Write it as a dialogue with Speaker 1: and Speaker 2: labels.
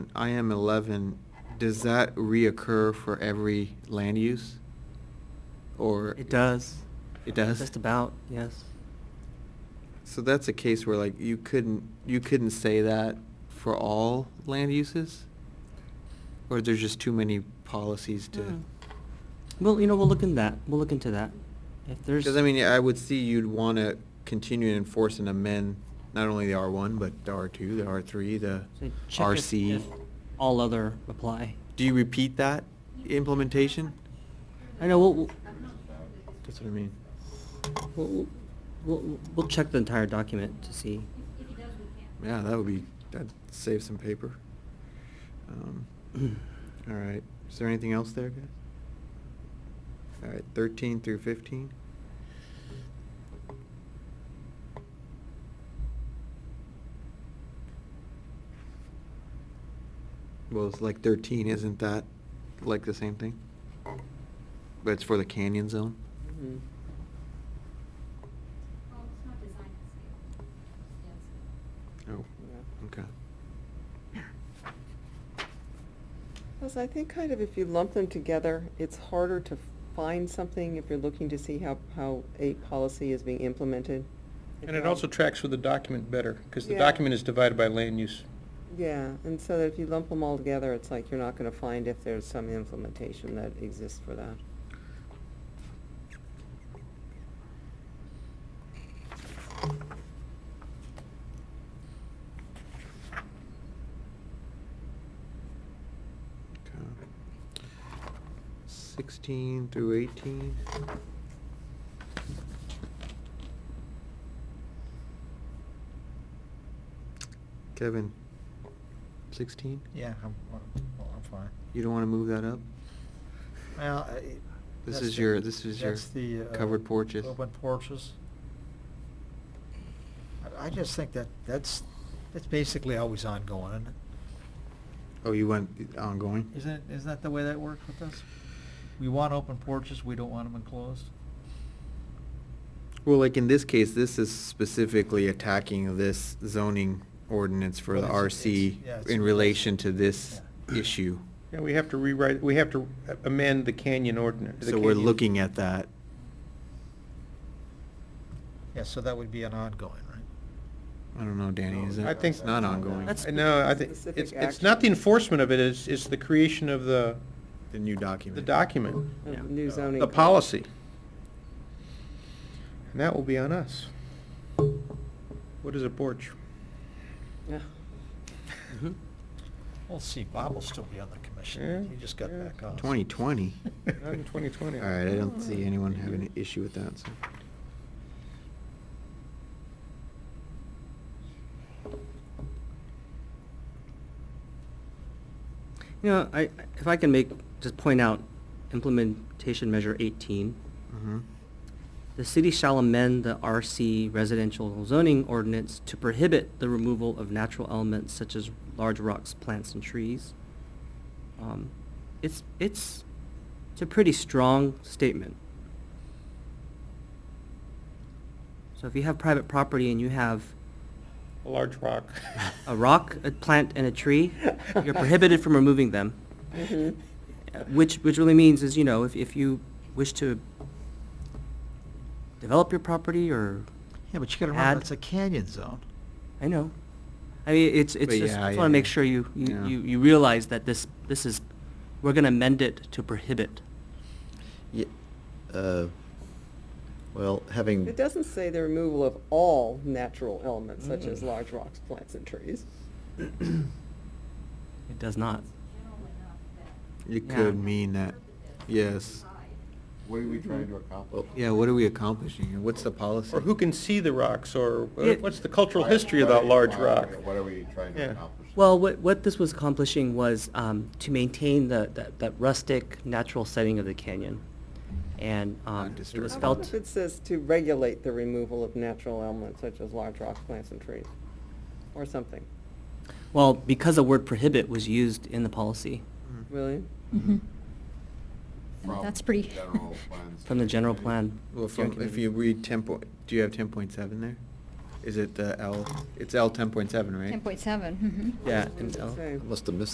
Speaker 1: IM eleven, does that reoccur for every land use? Or?
Speaker 2: It does.
Speaker 1: It does?
Speaker 2: Just about, yes.
Speaker 1: So that's a case where like you couldn't, you couldn't say that for all land uses? Or there's just too many policies to?
Speaker 2: Hmm. Well, you know, we'll look in that. We'll look into that. If there's.
Speaker 1: Because I mean, I would see you'd want to continue to enforce and amend not only the R one, but the R two, the R three, the
Speaker 2: Say, check if-
Speaker 1: RC.
Speaker 2: if All other apply.
Speaker 1: Do you repeat that implementation?
Speaker 2: I know, we'll,
Speaker 1: That's what I mean.
Speaker 2: we'll, we'll, we'll, we'll check the entire document to see.
Speaker 1: Yeah, that would be, that'd save some paper. Um, All right, is there anything else there, guys? All right, thirteen through fifteen? Well, it's like thirteen, isn't that like the same thing? But it's for the canyon zone?
Speaker 3: Mm-hmm.
Speaker 4: Well, it's not designed to scale. Yeah, it's-
Speaker 1: Oh, okay.
Speaker 3: Because I think kind of if you lump them together, it's harder to find something if you're looking to see how, how a policy is being implemented.
Speaker 5: And it also tracks with the document better, because the
Speaker 3: Yeah.
Speaker 5: document is divided by land use.
Speaker 3: Yeah, and so that if you lump them all together, it's like you're not gonna find if there's some implementation that exists for that.
Speaker 1: Okay. Sixteen through eighteen? Kevin, sixteen?
Speaker 6: Yeah, I'm, well, I'm fine.
Speaker 1: You don't wanna move that up?
Speaker 6: Well, I-
Speaker 1: This
Speaker 6: that's
Speaker 1: is
Speaker 6: the-
Speaker 1: your- this is your
Speaker 6: that's the, uh,
Speaker 1: covered porches.
Speaker 6: Open porches. I, I just think that, that's, that's basically always ongoing, isn't it?
Speaker 1: Oh, you went ongoing?
Speaker 6: Isn't, it- isn't that the way that works with us? We want open porches, we don't want them enclosed?
Speaker 1: Well, like in this case, this is specifically attacking this zoning ordinance for the
Speaker 6: Well, it's- it's- yeah,
Speaker 1: RC
Speaker 6: it's-
Speaker 1: in relation to this issue.
Speaker 5: Yeah, we have to rewrite, we have to amend the canyon ordinance.
Speaker 1: So we're looking at that.
Speaker 6: Yeah, so that would be an ongoing, right?
Speaker 1: I don't know, Danny,
Speaker 6: No,
Speaker 1: is it?
Speaker 5: I think-
Speaker 1: It's not ongoing.
Speaker 2: That's-
Speaker 5: No, I think,
Speaker 3: Specific
Speaker 5: it's, it's not the
Speaker 3: action.
Speaker 5: enforcement of it, it's, it's the creation of the,
Speaker 1: The new document.
Speaker 5: the document,
Speaker 3: Of
Speaker 2: Yeah.
Speaker 3: New zoning.
Speaker 5: the policy. And that will be on us. What is a porch?
Speaker 3: Yeah.
Speaker 1: Mm-hmm.
Speaker 2: Mhm.
Speaker 6: We'll see, Bob will still be on the commission,
Speaker 5: Yeah,
Speaker 6: he just got
Speaker 5: yeah.
Speaker 6: back on.
Speaker 1: 2020.
Speaker 5: Not in 2020.
Speaker 1: All right, I don't see anyone having an issue with that, so.
Speaker 2: You know, I, if I can make, just point out implementation measure eighteen.
Speaker 1: Mhm.
Speaker 2: The city shall amend the RC residential zoning ordinance to prohibit the removal of natural elements such as large rocks, plants, and trees. Um, It's, it's, it's a pretty strong statement. So if you have private property and you have
Speaker 5: A large rock.
Speaker 2: a rock, a plant, and a tree, you're prohibited from removing them.
Speaker 3: Mhm.
Speaker 2: Uh, Which, which really means is, you know, if, if you wish to develop your property or,
Speaker 6: Yeah, but you gotta
Speaker 2: Add-
Speaker 6: remember, it's a canyon zone.
Speaker 2: I know. I mean, it's, it's
Speaker 1: But
Speaker 2: just,
Speaker 1: yeah,
Speaker 2: I just
Speaker 1: yeah,
Speaker 2: wanna make
Speaker 1: yeah.
Speaker 2: sure you, you,
Speaker 1: Yeah.
Speaker 2: you you realize that this, this is, we're gonna amend it to prohibit.
Speaker 7: Ye- uh, Well, having.
Speaker 3: It doesn't say the removal of all natural elements such
Speaker 2: Mm.
Speaker 3: as large rocks, plants, and trees.
Speaker 2: It does not.
Speaker 4: it's general enough that
Speaker 1: It
Speaker 2: Yeah.
Speaker 1: could mean that,
Speaker 4: it's
Speaker 1: yes.
Speaker 4: inside.
Speaker 8: What are we trying to accomplish?
Speaker 1: Yeah, what are we accomplishing here? What's the policy?
Speaker 5: Or who can see the rocks, or
Speaker 2: Yeah.
Speaker 5: uh, what's the cultural history of that large rock?
Speaker 8: What are we trying
Speaker 5: Yeah.
Speaker 8: to accomplish?
Speaker 2: Well, what, what this was accomplishing was um, to maintain the, that, that rustic, natural setting of the canyon. And um, it
Speaker 1: disturbed.
Speaker 2: was
Speaker 3: How
Speaker 1: How
Speaker 3: about
Speaker 2: felt,
Speaker 3: if it says to regulate the removal of natural elements such as large rocks, plants, and trees, or something,
Speaker 2: well, because the word prohibit was used in the policy.
Speaker 1: Mm-hmm.
Speaker 3: really?
Speaker 9: Mhm.
Speaker 8: From
Speaker 9: That's pretty.
Speaker 8: general plans.
Speaker 2: From the general plan.
Speaker 1: Well, from, if you read ten point, do you have ten point seven there? Is it the L, it's L ten point seven, right?
Speaker 9: Ten point seven, mhm.
Speaker 2: Yeah,
Speaker 3: What
Speaker 2: and uh,
Speaker 3: does
Speaker 2: so-
Speaker 3: it say?
Speaker 7: I must have missed